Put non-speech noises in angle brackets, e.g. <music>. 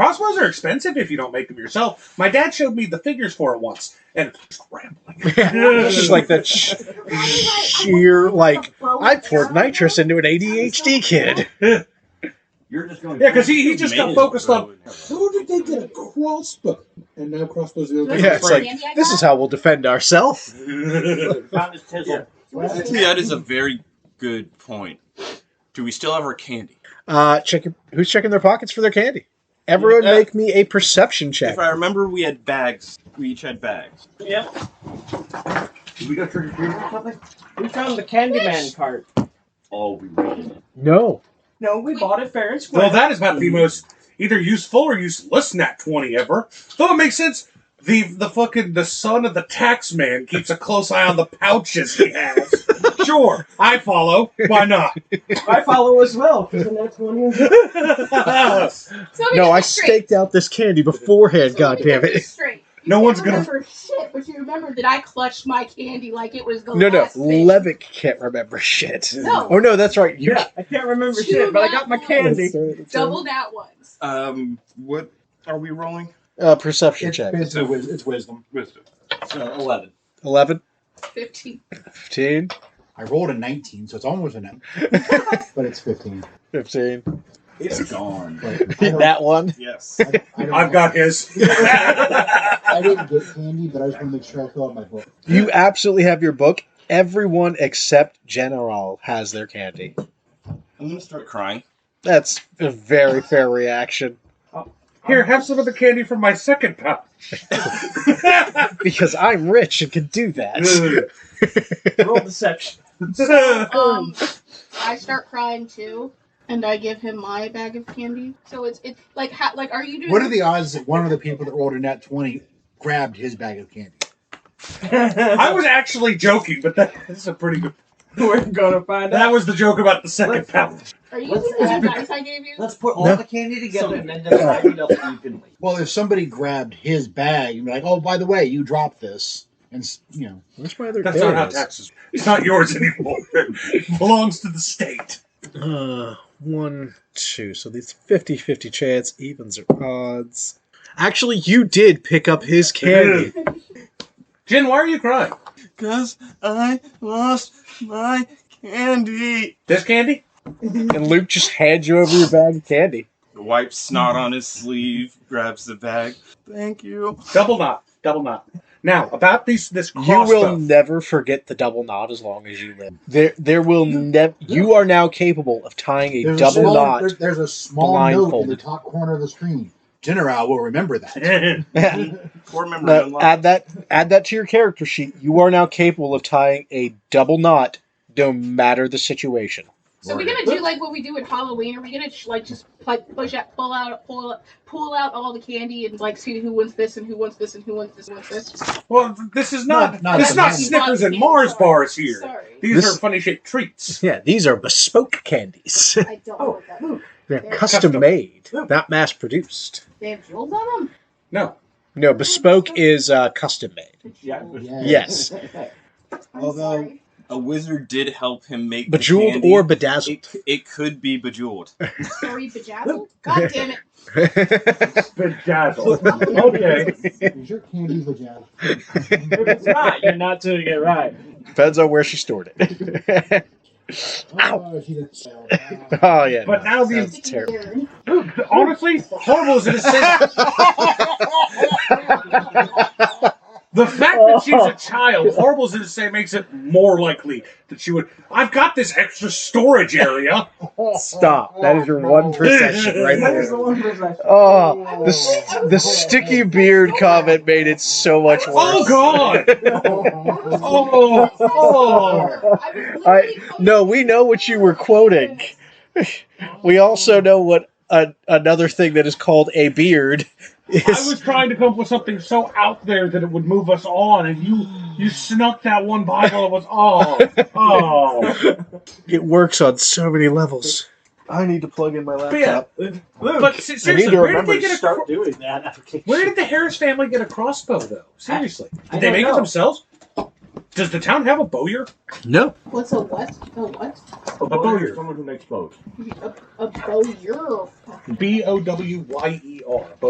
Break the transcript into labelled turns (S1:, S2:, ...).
S1: Crossbows are expensive if you don't make them yourself. My dad showed me the figures for it once, and scrambling.
S2: just like that sh- sheer like I poured nitrous into an ADHD kid.
S3: You're just going.
S1: Yeah, 'cause he- he just got focused on-
S4: How did they get a crossbow? And now crossbows are
S2: Yeah, it's like this is how we'll defend ourselves.
S3: Found his chisel.
S5: Actually, that is a very good point. Do we still have our candy?
S2: Uh, check who's checking their pockets for their candy. Everyone,
S5: Yeah.
S2: make me a perception check.
S5: If I remember, we had bags. We each had bags.
S6: Yep.
S3: Did we go trick or treating or something?
S6: We found the Candyman cart.
S3: Oh, we ran.
S2: No,
S6: No, we bought it fair and square.
S1: well, that is about the most either useful or useless Nat twenty ever. Though it makes sense. The the fucking the son of the tax man keeps a close eye on the pouches he has. sure, I follow. Why not?
S6: I follow as well. 'cause the next one is-
S7: Oh,
S2: no, I staked out this candy beforehand. God damn it!
S1: No one's gonna-
S7: remember shit, but you remember that I clutched my candy like it was the
S2: No, no,
S7: last thing.
S2: Levick can't remember shit.
S7: No.
S2: Oh no, that's right. You
S6: Yeah, I can't remember
S7: Two
S6: shit, but I got my
S7: black
S6: candy.
S7: Double that once.
S5: Um, what are we rolling?
S2: uh, perception check.
S5: it's a wis-
S4: it's wisdom.
S5: Wisdom. So eleven.
S2: 11,
S7: Fifteen.
S2: <laughs> 15,
S4: I rolled a 19, so it's almost a 9. but it's 15.
S2: 15.
S5: It's gone.
S4: Like, I don't-
S2: <laughs> That one.
S5: Yes.
S4: I don't- I don't
S1: I've
S4: know.
S1: got his.
S4: I didn't get candy, but I just want to make sure I fill out my book.
S2: You absolutely have your book. Everyone except General has their candy.
S5: I'm gonna start crying.
S2: That's a very fair reaction
S1: Here, have some of the candy from my second pouch. <laughs>
S2: because I'm rich and can
S1: <laughs>
S2: do that.
S1: um,
S6: Roll deception. <laughs>
S2: Oh.
S7: Um, I start crying too, and I give him my bag of candy. So it's it's like ha- like are you doing?
S4: What are the odds that one of the people that rolled a nat 20 grabbed his bag of candy?
S1: I was actually joking, but that is a pretty good.
S6: We're gonna find
S1: That
S6: out.
S1: was the joke about the second pouch.
S7: Are you
S3: What's
S7: using the
S3: that?
S7: advice I gave you?
S3: Let's put all
S2: No.
S3: the candy together and then divide it up evenly.
S4: Well, if somebody grabbed his bag and be like, oh, by the way, you dropped this, and s- you know,
S2: Where's my other
S1: That's
S2: there
S1: not how
S2: it is.
S1: taxes. It's not yours anymore. It belongs to the state.
S2: Uh, one, two. So these 50 50 chance, evens or odds. Actually, you did pick up
S1: <laughs>
S2: his candy.
S1: Jen, why are you crying?
S5: Cause I lost my candy.
S1: This candy?
S2: and Luke just hands you over your bag of candy.
S5: Wipes snot on his sleeve. Grabs the bag. Thank you.
S1: Double knot. Double knot. Now about these this
S2: You will
S1: crossbow.
S2: never forget the double knot as long as you live. There, there will never. You are now capable of tying a
S4: there's a
S2: double
S4: small,
S2: knot.
S4: there's, there's a small note in the
S2: blindfolded.
S4: top corner of the screen. General will remember that.
S2: <laughs>
S5: Core memory
S2: No,
S5: unlocked.
S2: add that. Add that to your character sheet. You are now capable of tying a double knot, no matter the situation.
S7: So we're gonna do like what we do at Halloween. Are we gonna sh- like just like push out, pull out, pull out, pull out all the candy and like see who wins this and who wants this and who wants this and who wants this?
S1: well, this is not,
S4: Not- not
S1: this is not
S4: bananas.
S1: Snickers and Mars bars here.
S7: Sorry,
S1: <laughs> These
S2: This-
S1: are funny shaped treats.
S2: Yeah, these are bespoke candies. <laughs>
S7: I don't know what that. Is.
S2: They're
S7: They're
S2: custom
S1: custom.
S2: made, not mass produced.
S7: They have jewels on them.
S1: No.
S2: No, bespoke is uh, custom made.
S3: Yeah.
S2: Yes,
S7: I'm
S3: Although-
S7: sorry.
S5: a wizard did help him make the
S2: bejeweled
S5: candy.
S2: or bedazzled.
S5: It, it could be bejeweled.
S7: sorry, bejazzled. God damn it!
S2: <laughs>
S1: Bedazzled. <laughs> okay.
S4: Is your candy legit?
S6: If it's not, you're not doing it right.
S2: Depends on where she stored it. <laughs>
S4: Oh, she didn't sell that.
S2: oh yeah.
S1: But now
S2: no,
S1: the-
S2: sounds terrible.
S1: Honestly, horrible as it is. The fact that she's a child, horrible as it is, say, makes it more likely that she would. I've got this extra storage area.
S2: Stop. That is your one perception right
S6: That is
S2: there.
S6: the one possession.
S4: uh,
S2: Oh, the, s- the
S4: <laughs>
S2: sticky beard comment made it so much worse.
S1: Oh God!
S2: <laughs>
S1: Oh, oh!
S2: I- no, we know what you were quoting. We also know what a, another thing that is called a beard is.
S1: I was trying to come up with something so out there that it would move us on, and you you snuck that one Bible. It was oh, oh.
S2: It works on so many levels. I need to plug in my
S1: But yeah,
S6: Luke,
S1: but se- seriously,
S2: to
S1: where did
S2: remember
S1: they
S2: to
S1: get a cro-
S6: start doing that.
S1: Where did the Harris family get a crossbow though? Seriously, did
S6: I
S1: they
S6: don't
S1: make it
S6: know.
S1: themselves? Does the town have a bowyer?
S2: No.
S7: What's a what? A what?
S3: A bowyer is someone who makes bows.
S7: A, a bowyer.
S1: B O W Y E R.